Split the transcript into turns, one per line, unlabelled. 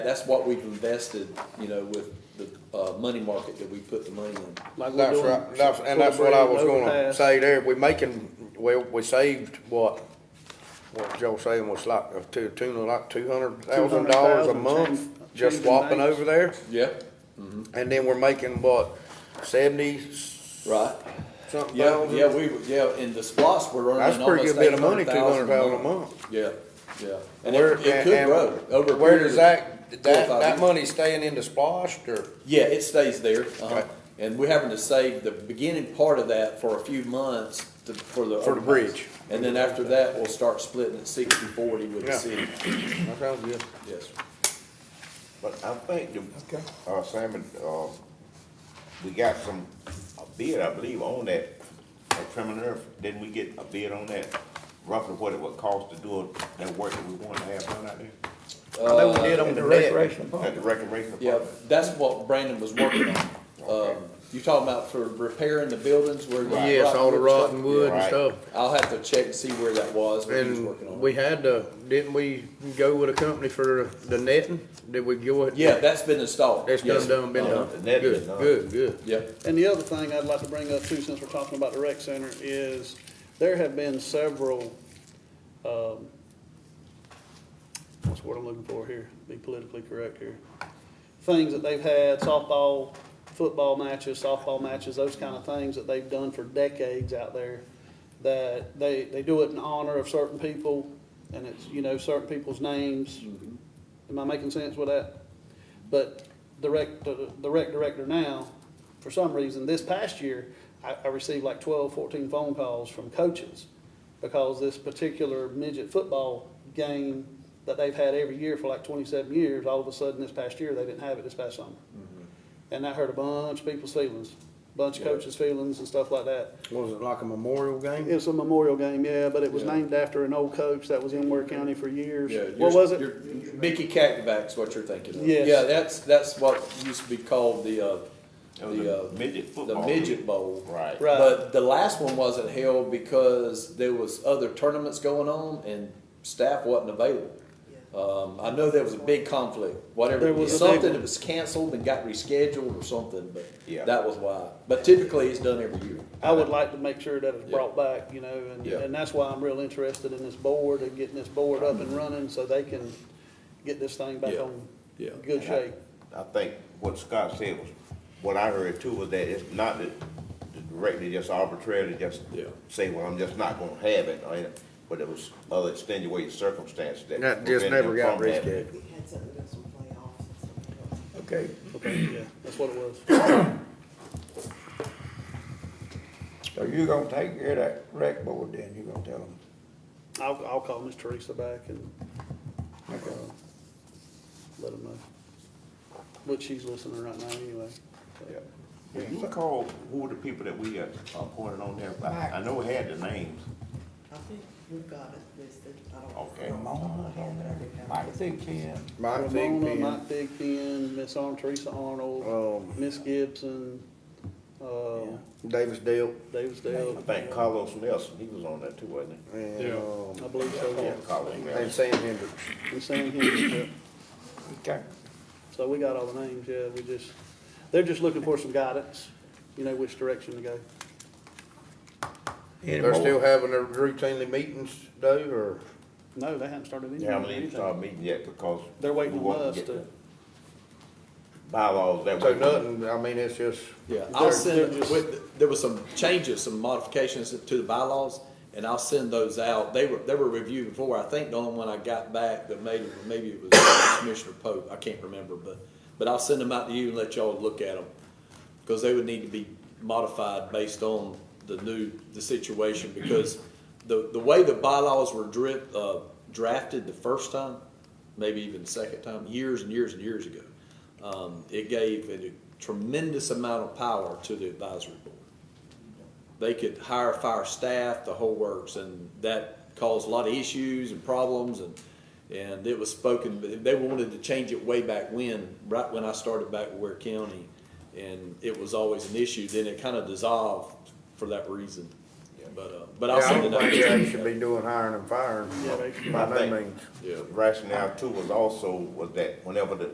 That's what we've invested, you know, with the, uh, money market that we put the money in.
Like we're
That's
doing
right, that's, and that's what I was
Cornbread,
gonna
Overpass.
say there, we making, well, we saved what, what Joe saying was like, uh, a two, two, like two hundred thousand dollars a
$200,000
month,
change-
just
changing
swapping
banks.
over there,
Yeah.
and then we're making what, seventy
Right.
something
Yeah, yeah,
thousand?
we, were- yeah, in the splosh, we're
That's
earning
a pretty
almost
good bit
eight
of money,
hundred
two
thousand
hundred thousand a month.
Yeah, yeah. And
Where-
it, it could
and-
grow over a
Where
period
does
of
that,
four or
that,
five
that
years.
money staying in the splosh, or,
Yeah, it stays there, uh-huh.
Okay.
And we're having to save the beginning part of that for a few months to, for the.
For the bridge.
And then after that, we'll start splitting it sixty forty with the
Yeah.
city,
that sounds good.
yes.
But I think, the- uh, Simon, uh, we got some, a bid, I believe, on that, at Trim and Earth, didn't we get a bid on that? Roughly what it would cost to do that work that we want to have done out there?
I know we did
Uh,
in
on
the
the
recreation
net,
park.
At the recreation
Yeah,
department?
that's what Brandon was working on. Um,
Okay.
you talking about for repairing the buildings where? you-
yes, all the
rock-
rotten wood and
Right.
stuff.
I'll have to check and see where that was, but he was working
And
on
we
it.
had to, didn't we go with a company for the netting? Did we go with?
Yeah, that's been installed.
It's
yes.
done, done, been
Uh-huh.
done.
The net is
Good,
done.
good, good.
Yep,
And the other thing I'd like to bring up too, since we're talking about the rec center, is there have been several, um, what's the word I'm looking for here? Be politically correct here. Things that they've had, softball, football matches, softball matches, those kind of things that they've done for decades out there. That they, they do it in honor of certain people and it's, you know, certain people's names. Am I making sense with that? But the rec, the the rec director now, for some reason, this past year, I, I received like 12, 14 phone calls from coaches because this particular midget football game that they've had every year for like twenty-seven years, all of a sudden this past year, they didn't have it this past summer.
Mm-hmm.
And that hurt a bunch of people's feelings, bunch of coaches' feelings and stuff like that.
Was it like a memorial game?
It's a memorial game, yeah, but it was
Yeah.
named after an old coach that was in Ware County for years.
yeah.
What
you're-
was it?
you're- Mickey Cactivac's what you're thinking of.
Yes.
Yeah, that's, that's what used to be called the, uh,
It was
the, uh,
a Oh, midget
the
football.
midget bowl.
Right.
Right.
But the last one wasn't held because there was other tournaments going on and staff wasn't available. Um, I know there was a big conflict, whatever,
There
it was
was a big
something
one.
that was canceled and got rescheduled or something, but
Yeah.
that was why. But typically, it's done every year.
I would like to make sure that it's
Yeah.
brought back, you know, and,
Yeah.
and that's why I'm real interested in this board and getting this board up and running so they can get this thing back
Yeah.
on
Yeah.
good
And I-
shape.
I think what Scott said was, what I heard too was that it's not that the director just arbitrarily just
Yeah.
say, well, I'm just not gonna have it, or, anything, but it was other extenuating circumstances that.
That just
prevented
never
him
got
from having it.
rescheduled.
We had something else in playoffs and something else.
Okay.
Okay, yeah, that's what it was.
So you're gonna take care of that rec board then, you're gonna tell them,
I'll, I'll call Miss Teresa back and, uh, let them know. But she's listening right now anyway.
Yeah. Can you recall who were the people that we uh, appointed on there? I, I know we had the names.
I think we've got it listed. I don't.
Okay.
I don't have it.
Mike think Ken,
Mike
Ramona,
Thigpen,
Mike Thigpen, Miss Arn, Teresa Arnold,
Um,
Miss Gibson, uh,
Davis Dale,
Davis
I
Dale,
think Carlos Nelson, he was on that too, wasn't
and,
Yeah.
um,
I believe
he? Yeah,
so,
Carlos
and
Nelson.
Sam Hendricks.
yeah. And Sam Hendricks, yeah.
okay,
So we got all the names, yeah, we just, they're just looking for some guidance, you know, which direction to go.
They're still having their routinely meetings though, or?
No, they haven't started any-
They haven't even
anything.
started meeting yet because.
They're waiting
we
on
want
us
get
to-
the Bylaws that.
So
we-
nothing, I mean, it's just,
Yeah, I'll
They're-
send,
they're just-
with, there was some changes, some modifications to the bylaws, and I'll send those out. They were, they were reviewed before. I think the only one I got back that maybe, maybe it was Commissioner Pope, I can't remember, but, but I'll send them out to you and let y'all look at them. Because they would need to be modified based on the new, the situation, because the, the way the bylaws were drip, uh, drafted the first time, maybe even the second time, years and years and years ago, um, it gave a tremendous amount of power to the advisory board. They could hire, fire staff, the whole works, and that caused a lot of issues and problems, and, and it was spoken, but they wanted to change it way back when, right when I started back at Ware County, and it was always an issue, then it kind of dissolved for that reason, but, uh, but
yeah,
I'll
I
send
don't
it out.
think they should be doing hiring and firing
Yeah, they-
by
I
no
think-
means.
Yeah.
Rationale too was also was that whenever the